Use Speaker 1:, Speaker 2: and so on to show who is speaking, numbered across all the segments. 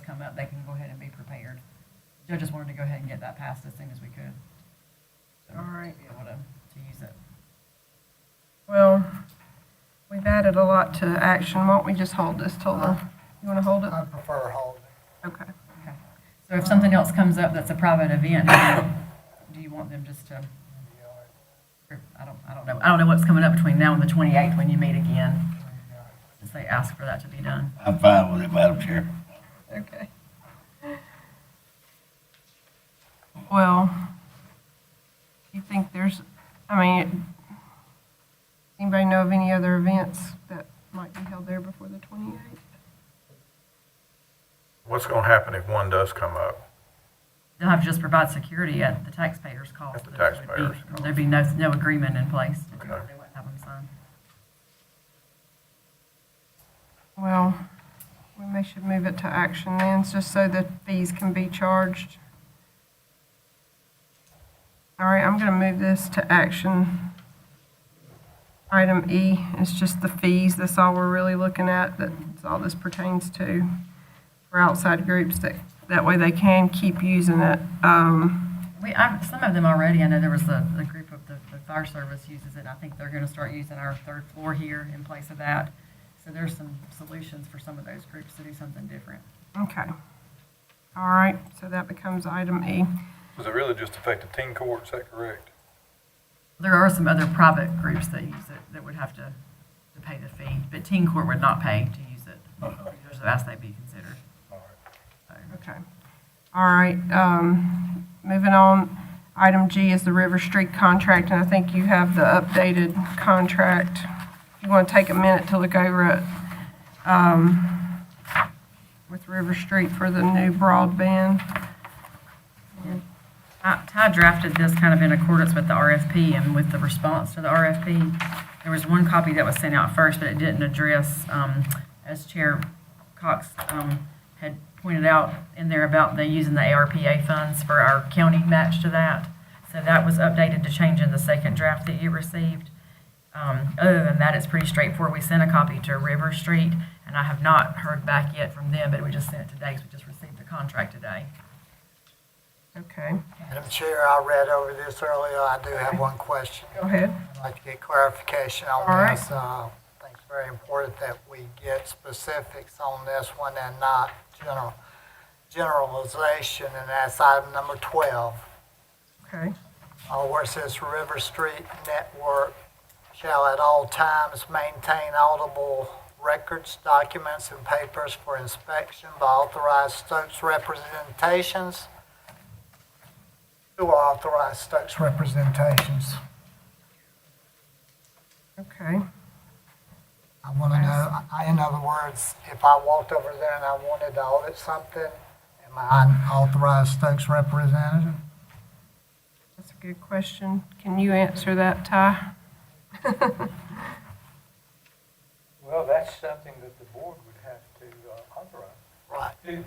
Speaker 1: come up, they can go ahead and be prepared. Joe just wanted to go ahead and get that passed as soon as we could. So,
Speaker 2: All right.
Speaker 1: To be able to, to use it.
Speaker 2: Well, we've added a lot to action. Why don't we just hold this till the, you want to hold it?
Speaker 3: I prefer holding.
Speaker 2: Okay.
Speaker 1: Okay. So if something else comes up that's a private event, do you want them just to, or, I don't, I don't know, I don't know what's coming up between now and the 28th when you meet again. Just say, ask for that to be done.
Speaker 4: I'm fine with it, Madam Chair.
Speaker 2: Okay. Well, you think there's, I mean, anybody know of any other events that might be held there before the 28th?
Speaker 5: What's going to happen if one does come up?
Speaker 1: They'll have to just provide security at the taxpayers' cost.
Speaker 5: At the
Speaker 1: but it would be-
Speaker 5: taxpayers' cost.
Speaker 1: There'd be no, no agreement in place. They
Speaker 5: Okay.
Speaker 1: wouldn't have them sign.
Speaker 2: Well, we may should move it to action then, just so that fees can be charged. All right, I'm gonna move this to action. Item E is just the fees, that's all we're really looking at, that's all this pertains to for outside groups, that, that way they can keep using it. Um,
Speaker 1: We, I, some of them already, I know there was a, a group of the, the fire service uses it, I think they're gonna start using our third floor here in place of that. So there's some solutions for some of those groups to do something different.
Speaker 2: okay. All right, so that becomes item E.
Speaker 5: Does it really just affect the teen court, is that correct?
Speaker 1: There are some other private groups that use it, that would have to, to pay the fee, but teen court would not pay to use it. There's a vast they be considered. So,
Speaker 2: Okay. All right, um, moving on, item G is the River Street contract, and I think you have the updated contract. If you want to take a minute to look over it, um, with River Street for the new broadband.
Speaker 1: I- Ty drafted this kind of in accordance with the RFP and with the response to the RFP. There was one copy that was sent out first, but it didn't address, um, as Chair Cox um, had pointed out in there about the using the ARPA funds for our county match to that. So that was updated to change in the second draft that you received. Um, Other than that, it's pretty straightforward. We sent a copy to River Street, and I have not heard back yet from them, but we just sent it today, because we just received the contract today.
Speaker 2: Okay,
Speaker 3: Madam Chair, I read over this earlier. I do have one question.
Speaker 2: go ahead.
Speaker 3: I'd like to get clarification
Speaker 2: All
Speaker 3: on
Speaker 2: right.
Speaker 3: this. Uh, I think it's very important that we get specifics on this one and not general, generalization, and that's item number 12.
Speaker 2: Okay,
Speaker 3: Uh, where it says River Street Network shall at all times maintain audible records, documents, and papers for inspection by authorized Stokes representations. Who are authorized Stokes representations?
Speaker 2: okay,
Speaker 3: I want to know, I- in other words, if I walked over there and I wanted to audit something, am I an authorized Stokes representative?
Speaker 2: that's a good question. Can you answer that, Ty?
Speaker 6: Well, that's something that the board would have to uh, authorize.
Speaker 3: Right,
Speaker 6: Who-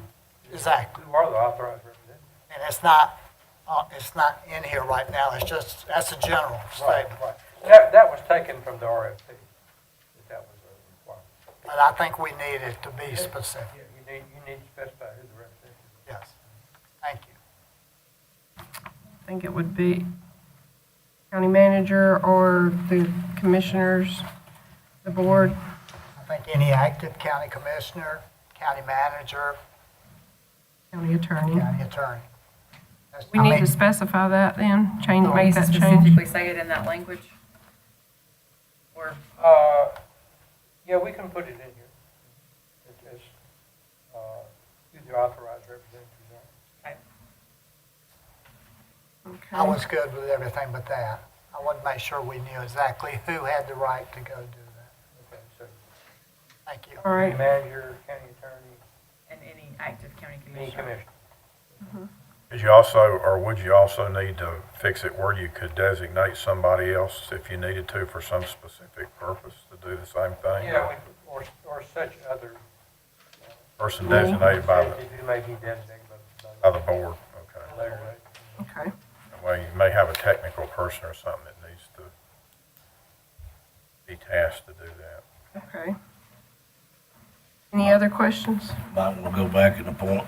Speaker 3: exactly.
Speaker 6: Who are the authorized representatives?
Speaker 3: And it's not, uh, it's not in here right now, it's just, that's a general
Speaker 6: Right,
Speaker 3: statement.
Speaker 6: right. That, that was taken from the RFP, that that was a requirement.
Speaker 3: But I think we need it to be specific,
Speaker 6: Yeah, You need, you need to specify who the representative is.
Speaker 3: yes. Thank you.
Speaker 2: I think it would be county manager or the commissioners, the board.
Speaker 3: I think any active county commissioner, county manager,
Speaker 2: County attorney.
Speaker 3: county attorney. That's-
Speaker 2: We
Speaker 3: I
Speaker 2: need
Speaker 3: mean,
Speaker 2: to specify that then, change,
Speaker 1: Can we
Speaker 2: make that change.
Speaker 1: specifically say it in that language? Or,
Speaker 6: Uh, yeah, we can put it in here. It is, uh, who the authorized representatives are.
Speaker 3: I
Speaker 2: Okay.
Speaker 3: was good with everything but that. I wanted to make sure we knew exactly who had the right to go do that.
Speaker 6: Okay, so.
Speaker 3: Thank you.
Speaker 2: All right,
Speaker 6: Manager, county attorney,
Speaker 1: and any active county
Speaker 6: any
Speaker 1: commissioner?
Speaker 6: commissioner.
Speaker 5: Is you also, or would you also need to fix it where you could designate somebody else if you needed to for some specific purpose to do the same thing?
Speaker 6: Yeah, we- or, or such other.
Speaker 5: Person designated by the,
Speaker 6: Who may be designated by the- by the.
Speaker 5: by the board, okay.
Speaker 6: Later, right?
Speaker 2: okay,
Speaker 5: Well, you may have a technical person or something that needs to be tasked to do that.
Speaker 2: okay. Any other questions?
Speaker 4: Might want to go back and appoint